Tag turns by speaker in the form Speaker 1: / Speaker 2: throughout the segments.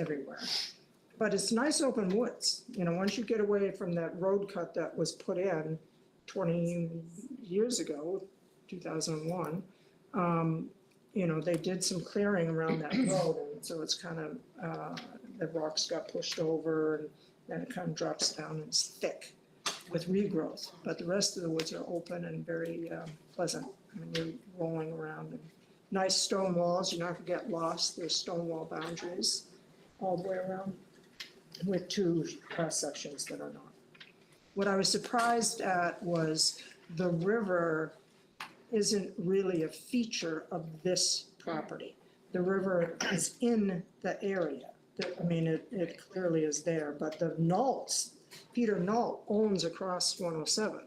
Speaker 1: everywhere. But it's nice open woods, you know, once you get away from that road cut that was put in twenty years ago, two thousand and one. Um, you know, they did some clearing around that road, and so it's kind of, uh, the rocks got pushed over and then it kind of drops down and it's thick with regrowth. But the rest of the woods are open and very um, pleasant. I mean, you're rolling around and nice stone walls, you're not gonna get lost, there's stone wall boundaries all the way around with two cross sections that are not. What I was surprised at was the river isn't really a feature of this property. The river is in the area. The- I mean, it, it clearly is there, but the Nolts, Peter Nolt owns across 107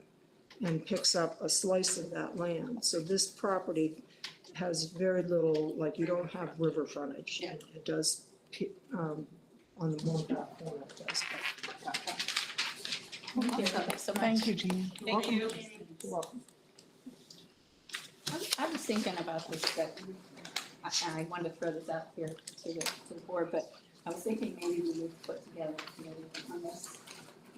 Speaker 1: and picks up a slice of that land. So this property has very little, like, you don't have river frontage.
Speaker 2: Yeah.
Speaker 1: It does, pe- um, on the one back corner it does, but
Speaker 2: Thank you so much.
Speaker 3: Thank you, Jean.
Speaker 2: Thank you.
Speaker 1: you're welcome.
Speaker 2: I- I was thinking about this, but I, I wanted to throw this out here to the, to the board, but I was thinking maybe we would put together a committee on this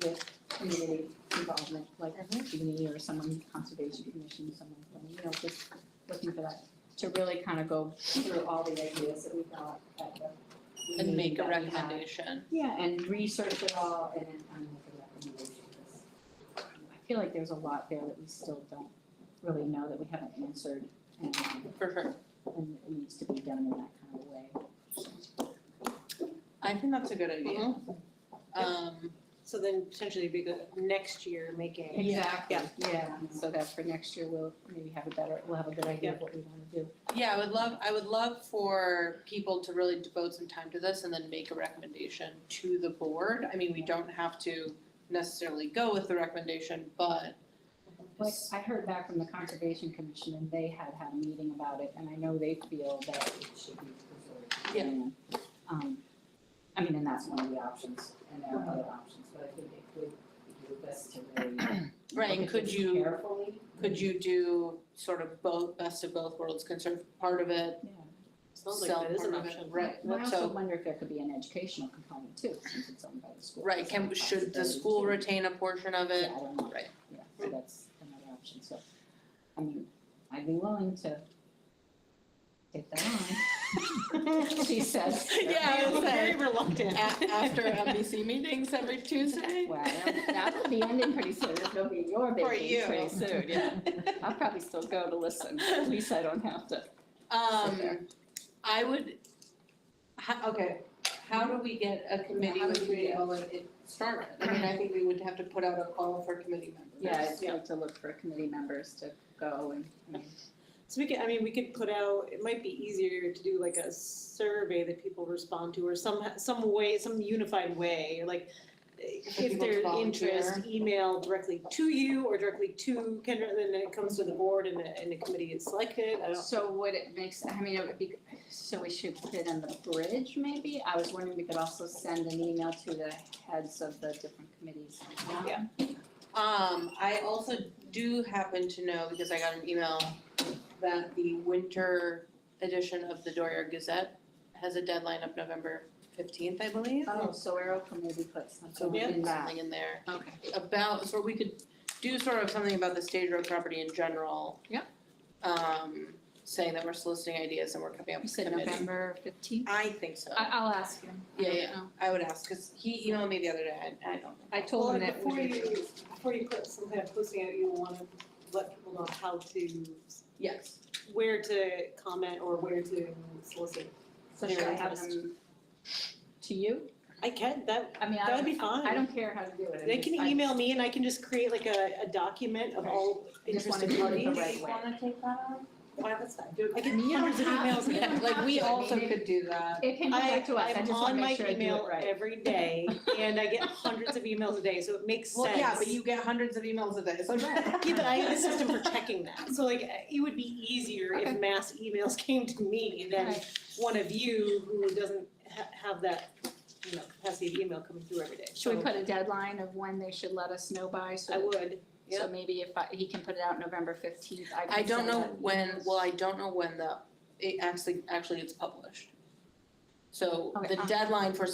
Speaker 2: with community involvement, like community or someone, conservation commission, someone, you know, just looking for that, to really kind of go through all the ideas that we got at the meeting
Speaker 4: and make a
Speaker 2: that we had.
Speaker 4: recommendation.
Speaker 2: Yeah, and research it all and then kind of make a recommendation. 'cause, um, I feel like there's a lot there that we still don't really know that we haven't answered and, um,
Speaker 4: For sure.
Speaker 2: and it needs to be done in that kind of way.
Speaker 4: I think that's a good idea.
Speaker 5: Mm-hmm.
Speaker 4: Um,
Speaker 5: So then potentially it'd be good next year making.
Speaker 2: Exactly,
Speaker 5: Yeah.
Speaker 2: yeah, and so that for next year, we'll maybe have a better, we'll have a good idea of what we wanna do.
Speaker 4: yeah, I would love, I would love for people to really devote some time to this and then make a recommendation to the board. I mean, we don't have to necessarily go with the recommendation, but
Speaker 2: Like, I heard back from the Conservation Commission and they had had a meeting about it and I know they feel that it should be preserved.
Speaker 4: Yeah.
Speaker 2: And, Um, I mean, and that's one of the options and there are other options, but I think it would be best to really.
Speaker 4: Right,
Speaker 2: look at
Speaker 4: could
Speaker 2: this
Speaker 4: you-
Speaker 2: Carefully.
Speaker 4: could you do sort of both, best of both worlds, conserve part of it,
Speaker 2: Yeah.
Speaker 4: sell
Speaker 5: Sounds
Speaker 4: part of it?
Speaker 5: like that is an option.
Speaker 4: Right,
Speaker 2: And I also
Speaker 4: so,
Speaker 2: wonder if there could be an educational component too, since it's owned by the school.
Speaker 4: right, can, should the school
Speaker 2: retain?
Speaker 4: retain a portion of it?
Speaker 2: Yeah, I don't know.
Speaker 4: Right.
Speaker 2: Yeah, so that's another option, so, I mean, I'd be willing to take that on, she says.
Speaker 4: Yeah, I was
Speaker 5: Very
Speaker 4: saying.
Speaker 5: reluctant.
Speaker 4: A- after MBC meetings every Tuesday?
Speaker 2: Well, that'll be ending pretty soon, it'll be your
Speaker 4: For
Speaker 2: baby pretty
Speaker 4: you.
Speaker 2: soon, yeah. I'll probably still go to listen, at least I don't have to.
Speaker 4: Um, I would, ho- okay, how do we get a committee
Speaker 2: How
Speaker 4: with
Speaker 2: do we do
Speaker 4: community
Speaker 2: that?
Speaker 4: involvement it started? I mean, I think we would have to put out a call for committee members.
Speaker 2: Yeah, I'd like to look for committee members to go and, I mean,
Speaker 5: So we could, I mean, we could put out, it might be easier to do like a survey that people respond to or some, some way, some unified way, or like if
Speaker 4: people to
Speaker 5: their
Speaker 4: volunteer.
Speaker 5: interest, email directly to you or directly to Kendra, then it comes to the board and the, and the committee is selected, I don't.
Speaker 2: So would it make, s- I mean, it would be, so we should put it on the bridge maybe? I was wondering we could also send an email to the heads of the different committees.
Speaker 5: Yeah.
Speaker 4: Um, I also do happen to know, because I got an email, that the winter edition of the Doria Gazette has a deadline of November fifteenth, I believe.
Speaker 2: Oh, so Arrow can maybe put
Speaker 4: So
Speaker 2: something
Speaker 4: we
Speaker 2: in
Speaker 4: did
Speaker 2: that.
Speaker 4: something in there.
Speaker 2: Okay.
Speaker 4: about, so we could do sort of something about the stage road property in general.
Speaker 2: Yep.
Speaker 4: Um, saying that we're soliciting ideas and we're coming up
Speaker 2: You
Speaker 4: with
Speaker 2: said
Speaker 4: committees.
Speaker 2: November fifteenth?
Speaker 4: I think so.
Speaker 2: I, I'll ask him. I
Speaker 4: Yeah,
Speaker 2: don't
Speaker 4: yeah.
Speaker 2: know.
Speaker 4: I would ask, cause he emailed me the other day, I, I don't think.
Speaker 2: I told him
Speaker 5: Well,
Speaker 2: that we
Speaker 5: before you,
Speaker 2: would.
Speaker 5: before you put some kind of posting out, you wanna let people know how to,
Speaker 4: Yes.
Speaker 5: where to comment or where to solicit.
Speaker 2: So should I have them to you?
Speaker 5: I can, that,
Speaker 2: I mean, I
Speaker 5: that would
Speaker 2: don't,
Speaker 5: be fine.
Speaker 2: I don't care how to do it. I
Speaker 5: They
Speaker 2: just-
Speaker 5: can
Speaker 2: I-
Speaker 5: email me and I can just create like a, a document of all
Speaker 2: I just wanna
Speaker 5: interested
Speaker 2: do it
Speaker 5: parties.
Speaker 2: the right way.
Speaker 4: wanna take that on?
Speaker 5: Why, that's fine. I get
Speaker 2: You don't
Speaker 5: hundreds of
Speaker 2: have-
Speaker 5: emails.
Speaker 2: you don't
Speaker 4: Yeah, like we
Speaker 2: have to, I
Speaker 4: also
Speaker 2: mean,
Speaker 4: could do that.
Speaker 2: It can come back to us, I just wanna make sure I do
Speaker 5: am
Speaker 2: it
Speaker 5: on my email
Speaker 2: right.
Speaker 5: every day and I get hundreds of emails a day, so it makes sense.
Speaker 4: Well, yeah, but you get hundreds of emails a day, so.
Speaker 5: Yeah, but I have a system for checking that. So like, it would be easier
Speaker 2: Okay.
Speaker 5: if mass emails came to me than
Speaker 2: Right.
Speaker 5: one of you who doesn't ha- have that, you know, capacity of email coming through every day.
Speaker 2: Should we
Speaker 5: So
Speaker 2: put a deadline of when they should let us know by, so
Speaker 5: I would,
Speaker 2: So
Speaker 5: Yeah.
Speaker 2: maybe if I, he can put it out November fifteenth, I can
Speaker 4: I don't
Speaker 2: send
Speaker 4: know
Speaker 2: out
Speaker 4: when,
Speaker 2: emails.
Speaker 4: well, I don't know when the, it actually, actually gets published. So
Speaker 2: Okay,
Speaker 4: the
Speaker 2: uh,
Speaker 4: deadline for